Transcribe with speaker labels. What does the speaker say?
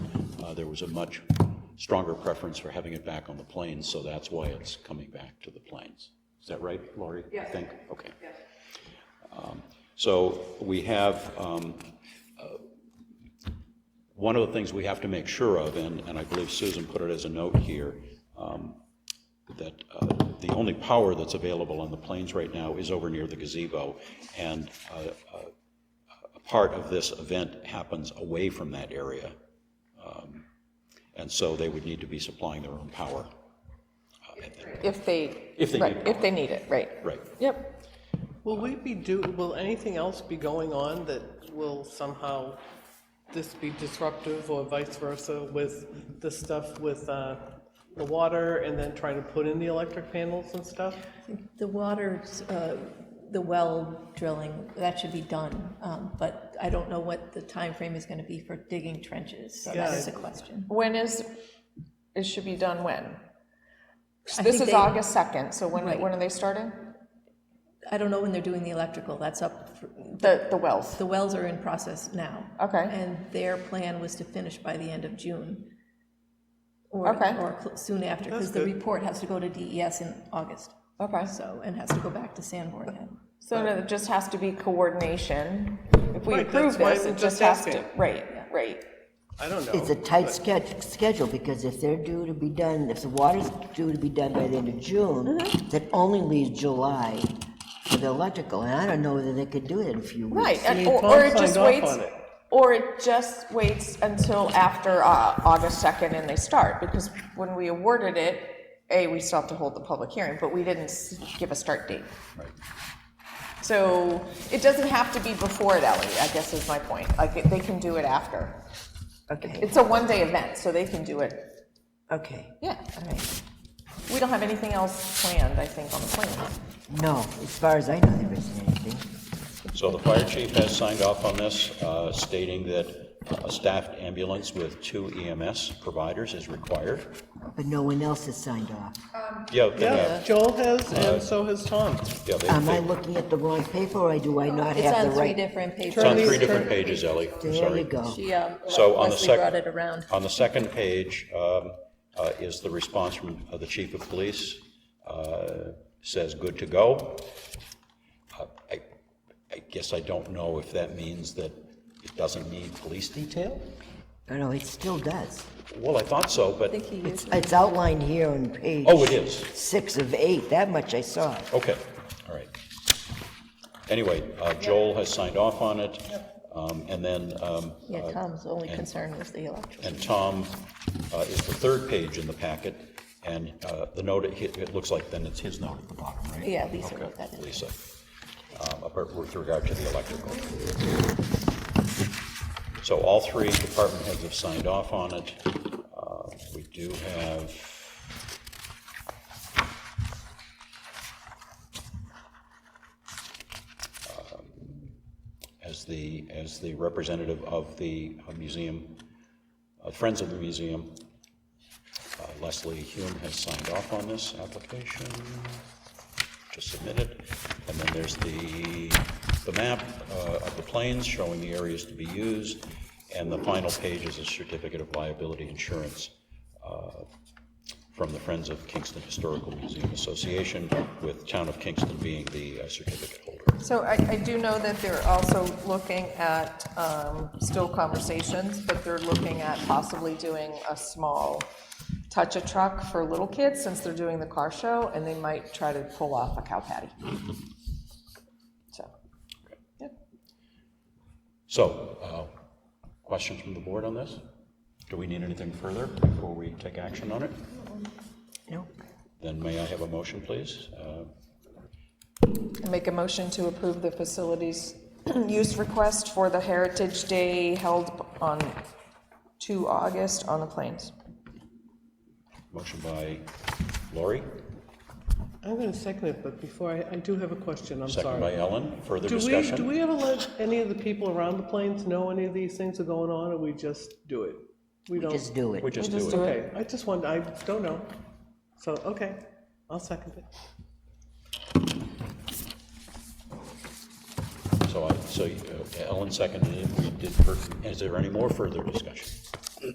Speaker 1: Uh, there was a much stronger preference for having it back on the plains, so that's why it's coming back to the plains. Is that right, Lori? Yeah. I think, okay. Um, So we have, um, uh, one of the things we have to make sure of, and, and I believe Susan put it as a note here, um, that uh, the only power that's available on the plains right now is over near the gazebo, and uh, part of this event happens away from that area. Um, And so they would need to be supplying their own power.
Speaker 2: If they,
Speaker 1: If they
Speaker 2: right,
Speaker 1: need
Speaker 2: if they need it, right.
Speaker 1: Right.
Speaker 2: Yep.
Speaker 3: Will we be do, will anything else be going on that will somehow this be disruptive or vice versa with the stuff with uh, the water and then trying to put in the electric panels and stuff?
Speaker 4: The water, uh, the well drilling, that should be done, um, but I don't know what the time frame is going to be for digging trenches, so that
Speaker 3: Yeah.
Speaker 4: is a question.
Speaker 2: When is, it should be done when?
Speaker 4: I
Speaker 2: This
Speaker 4: think
Speaker 2: is
Speaker 4: they-
Speaker 2: August 2nd, so when,
Speaker 4: Right.
Speaker 2: when are they starting?
Speaker 4: I don't know when they're doing the electrical, that's up, for-
Speaker 2: The, the wells?
Speaker 4: the wells are in process now.
Speaker 2: Okay.
Speaker 4: And their plan was to finish by the end of June. or-
Speaker 2: Okay.
Speaker 4: Or cl- soon after, because the report has to go to DES in August,
Speaker 2: Okay,
Speaker 4: so, and has to go back to Sanborn then.
Speaker 2: so it just has to be coordination. If we
Speaker 3: Right,
Speaker 2: approve
Speaker 3: that's why
Speaker 2: this,
Speaker 3: I'm
Speaker 2: it just
Speaker 3: just
Speaker 2: has to,
Speaker 3: asking.
Speaker 2: right, right.
Speaker 3: I don't know.
Speaker 5: It's a tight sched- schedule, because if they're due to be done, if the water's due to be done by the end of June,
Speaker 4: Mm-hmm.
Speaker 5: that only leaves July for the electrical, and I don't know whether they could do it in a few weeks.
Speaker 2: Right, and-
Speaker 3: See,
Speaker 2: or,
Speaker 3: Tom
Speaker 2: or it
Speaker 3: signed
Speaker 2: just
Speaker 3: off
Speaker 2: waits,
Speaker 3: on it.
Speaker 2: or it just waits until after uh, August 2nd and they start, because when we awarded it, A, we still have to hold the public hearing, but we didn't s- give a start date. So it doesn't have to be before it, Ellie, I guess is my point, like, they can do it after.
Speaker 4: uh,
Speaker 5: Okay,
Speaker 2: It's a one-day event, so they can do it,
Speaker 5: okay,
Speaker 2: yeah, all right. We don't have anything else planned, I think, on the plan.
Speaker 5: no, as far as I know, there isn't anything.
Speaker 1: So the fire chief has signed off on this, uh, stating that a staffed ambulance with two EMS providers is required.
Speaker 5: But no one else has signed off.
Speaker 1: Yeah, Uh, they
Speaker 3: Yeah,
Speaker 1: have,
Speaker 3: Joel has, and so has Tom.
Speaker 1: yeah, they,
Speaker 5: Am Um, I
Speaker 1: they-
Speaker 5: looking at the wrong paper, or do I not
Speaker 4: It's
Speaker 5: have
Speaker 4: on
Speaker 5: the
Speaker 4: three
Speaker 5: right?
Speaker 4: different papers.
Speaker 1: it's on three different pages, Ellie, I'm
Speaker 5: There you
Speaker 1: sorry.
Speaker 5: go.
Speaker 4: She, um,
Speaker 1: So on the
Speaker 4: Leslie
Speaker 1: sec-
Speaker 4: brought it around.
Speaker 1: On the second page um, uh, is the response from uh, the chief of police, uh, says, "Good to go." Uh, I I guess I don't know if that means that it doesn't need police detail?
Speaker 5: No, no, it still does.
Speaker 1: Well, I thought so, but,
Speaker 4: think he used
Speaker 5: It's outlined here on page.
Speaker 1: oh, it is.
Speaker 5: Six of eight, that much I saw.
Speaker 1: Okay, all right. Anyway, uh, Joel has signed off on it, um, and then, um,
Speaker 4: Yeah, Tom's only concern was the electrical.
Speaker 1: and Tom uh, is the third page in the packet, and uh, the note, it it looks like then it's his note at the bottom, right?
Speaker 4: Yeah, Lisa
Speaker 1: Okay,
Speaker 4: wrote that in.
Speaker 1: Lisa, um, apart- with regard to the electrical. So all three department heads have signed off on it. Uh, We do have, um, as the, as the representative of the uh, museum, uh, Friends of the Museum, uh, Leslie Hume has signed off on this application, just submitted. And then there's the, the map uh, of the plains showing the areas to be used. And the final page is a certificate of liability insurance uh, from the Friends of Kingston Historical Museum Association, with Town of Kingston being the uh, certificate holder.
Speaker 2: So I, I do know that they're also looking at, um, still conversations, but they're looking at possibly doing a small touch-a truck for little kids, since they're doing the car show, and they might try to pull off a cow patty. So, yep.
Speaker 1: So, uh, questions from the board on this? Do we need anything further before we take action on it?
Speaker 5: Nope.
Speaker 1: Then may I have a motion, please? Uh,
Speaker 2: I Make a motion to approve the facilities use request for the Heritage Day held on 2 August on the Plains.
Speaker 1: Motion by Lori,
Speaker 3: I'm going to second it, but before, I, I do have a question, I'm
Speaker 1: second by
Speaker 3: sorry.
Speaker 1: Ellen. Further
Speaker 3: Do we,
Speaker 1: discussion?
Speaker 3: do we ever let any of the people around the plains know any of these things are going on, or we just do it? We don't.
Speaker 5: Just do it.
Speaker 1: We just
Speaker 2: just
Speaker 1: do
Speaker 2: do
Speaker 1: it.
Speaker 2: it.
Speaker 3: Okay, I just want, I don't know. So, okay, I'll second it.
Speaker 1: So I, so uh, Ellen seconded it. We did, fir- is there any more further discussion?